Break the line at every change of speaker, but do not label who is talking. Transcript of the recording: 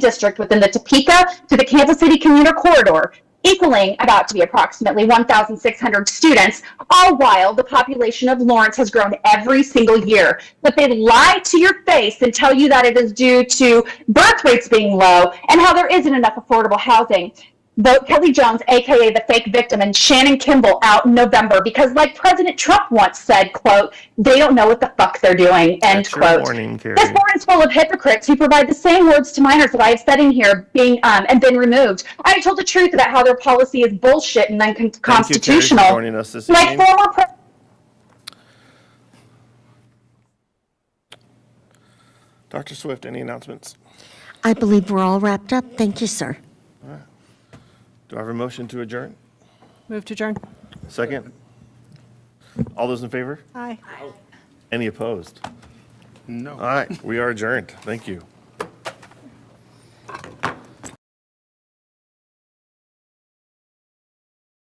district within the Topeka to the Kansas City commuter corridor, equaling about to be approximately 1,600 students, all while the population of Lawrence has grown every single year. But they lie to your face and tell you that it is due to birth rates being low and how there isn't enough affordable housing. Vote Kelly Jones, aka the fake victim, and Shannon Kimball out in November because, like President Trump once said, "quote They don't know what the fuck they're doing." End
That's your
quote.
warning, Carrie.
This board is full of hypocrites who provide the same words to minors that I have said in here being um, and been removed. I have told the truth about how their policy is bullshit and
Thank you, Carrie, for
unconstitutional.
joining us this
Like
evening.
former president.
Dr. Swift, any announcements?
I believe we're all wrapped up. Thank you, sir.
Do I have a motion to adjourn?
Move to adjourn.
Second? All those in favor?
Aye.
Any opposed?
No.
All right, we are adjourned. Thank you.